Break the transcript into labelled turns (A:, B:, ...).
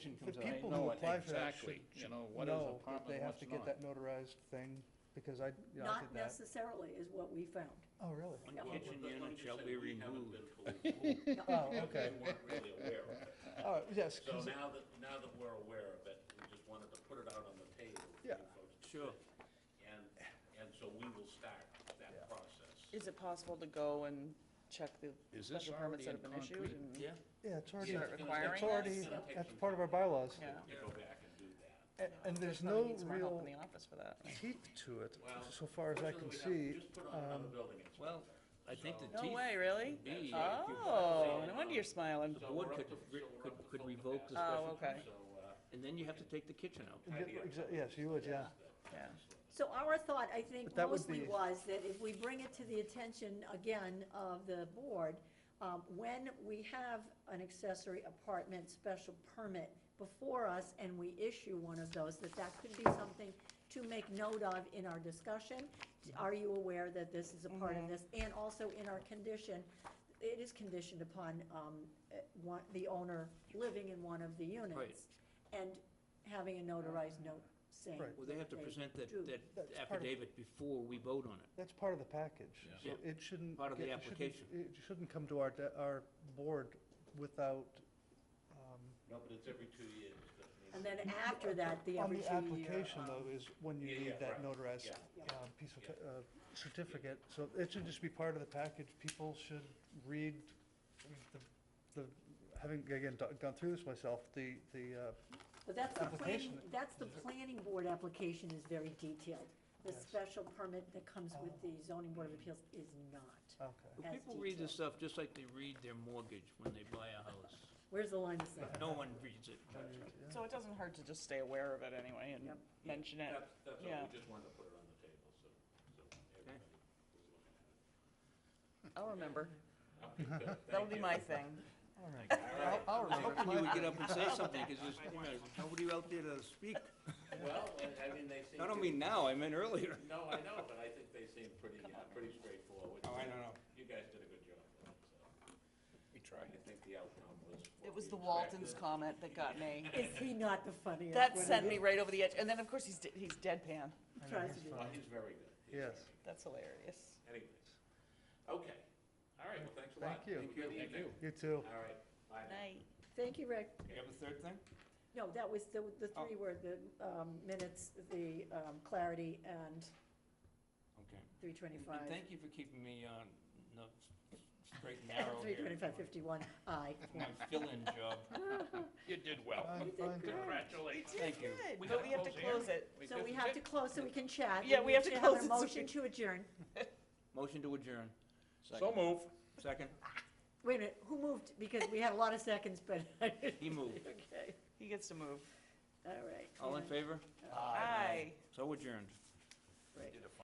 A: comes
B: But
A: out, I
B: people
A: know
B: who
A: it
B: apply for that
A: exactly,
B: should-
A: you
B: should
A: know, what is
B: know
A: apartment,
B: that they have
A: what's
B: to get
A: not.
B: that notarized thing, because I, yeah, I
C: Not
B: did that.
C: necessarily is what we found.
B: Oh, really?
D: One
C: Yeah.
D: kitchen
E: Well, let me
D: unit
E: just
D: shall
E: say
D: be
E: we haven't
D: removed.
E: been fully informed.
B: Oh, okay.
E: We weren't really aware of it.
B: All right, yes,
E: So
B: 'cause-
E: now that, now that we're aware of it, we just wanted to put it out on the table for you
B: Yeah.
E: folks. to
D: Sure.
E: see. And, and so we will start
B: Yeah.
E: that process.
F: Is it possible to go and check the
A: Is this
F: special
A: already
F: permits that
A: in
F: have been issued?
A: concrete?
F: and-
D: Yeah,
B: yeah, it's already,
F: Start requiring
B: it's
F: this?
B: already, that's part of our bylaws.
F: Yeah.
E: To go back and do that.
B: And, and there's
F: Probably
B: no
F: needs more help
B: real
F: in the office for that.
B: teeth to it,
E: Well,
B: so far as I can
E: fortunately, we
B: see. um,
E: have- Just put on another building inspector.
D: well, I think the
F: No
D: teeth,
F: way, really?
D: be-
F: Oh, no wonder you're smiling.
E: So
D: the board
E: we're up
D: could,
E: to-
D: re-
E: so we're
D: could,
E: up to
D: could
E: full
D: revoke the
E: capacity.
F: Oh,
D: special,
F: okay.
E: So, uh,
D: and then you have have to take the kitchen out.
B: Yeah,
E: idea.
B: exa- Yes, you would, yeah.
F: Yeah.
C: So our thought, I think
B: But that would
C: mostly
B: be-
C: was that if we bring it to the attention again of the board, um, when we have an accessory apartment special permit before us and we issue one of those, that that could be something to make note of in our discussion.
B: Mm-hmm.
C: Are you aware that this is a part of this? And also in our condition, it is conditioned upon, um, eh, one, the owner living in one of the units. And having a notarized note saying.
B: Right.
D: Well, they have to
C: that
D: present that,
C: do.
D: that
B: That's part of-
D: affidavit before we vote on it.
B: That's part of the package, so
D: Yeah.
B: it shouldn't.
D: Part of the
B: get- it shouldn't-
D: application.
B: It shouldn't come to our, de- our board without, um,
E: No, but it's every two years. doesn't it?
C: And then after that, the
B: Mm-hmm. on
C: every two
B: the
C: year.
B: application
C: um,
B: though, is when you
E: Yeah,
B: need
E: yeah,
B: that
E: right,
B: notarized,
E: yeah.
C: Yeah.
B: uh, piece of, ta- uh, certificate. So it should just be part of the package. People should read the, the, having, again, do- gone through this myself, the, the, uh,
C: But that's the planning,
B: application.
C: that's the planning board application is very detailed. The
B: Yes. Oh.
C: special permit that comes with the zoning board of appeals is not.
B: okay.
D: But
C: As
D: People read
C: detailed.
D: this stuff just like they read their mortgage when they buy a house.
C: Where's the line of sight?
D: No one reads it.
B: Yeah.
F: So it doesn't hurt to just stay aware of it anyway and
C: Yep.
F: mention it.
E: That's, that's all,
F: Yeah.
E: we just wanted to put it on the table, so, so everybody was looking at it.
F: I'll remember.
E: Okay, good.
F: That'll
E: Thank you.
F: be my thing.
B: All right. I'll- I'll
D: I was
B: remember.
D: hoping you would get up and say something, because there's, you know, nobody out there to speak.
E: Well, I I mean, they seem.
D: I don't
E: to-
D: mean now, I meant earlier.
E: No, I know, but I think they seem pretty, uh, pretty straightforward.
D: Oh, I don't know.
E: You guys did a good job, with it, so
D: We tried.
E: I think the outcome was. what
F: It was
E: we
F: the Waltons
E: expected.
F: comment that got me.
C: Is he not the funniest?
F: That
C: one?
F: sent me right over the edge. And then, of course, he's, de- he's
B: I
F: deadpan.
B: know,
C: Tries
B: that's
C: to be.
E: Well,
B: fine.
E: he's very good.
B: Yes.
E: He's very good.
F: That's hilarious.
E: Anyways, okay, all right, well, thanks a lot.
B: Thank you.
E: Thank you. Thank you.
B: You too.
E: All right, bye. now.
F: Night.
C: Thank you, Rick.
D: You have a third thing?
C: No, that was the, the
B: Oh.
C: three were the um, minutes, the um, clarity and
D: Okay.
C: three
D: And-
C: twenty-five.
D: And thank you for keepting me on the s- straight and narrow
C: Three
D: here.
C: twenty-five fifty-one, aye.
D: For My fill-in job. You did well.
B: Fine,
A: Uh,
C: You
B: fine,
C: did good.
B: fine.
D: Congratulations. Thank you.
F: Good, but we have to close it.
C: So we have to close so we can chat.
F: Yeah, we have to close
C: a
F: it so
C: Motion
F: we-
C: to adjourn.
D: Motion to adjourn. So move. Second.
C: Wait a minute, who moved? Because we had a lot of seconds, but, okay,
D: He moved.
F: He gets to move.
C: all right.
D: All in favor?
F: Aye.
D: So adjourned.
C: Right.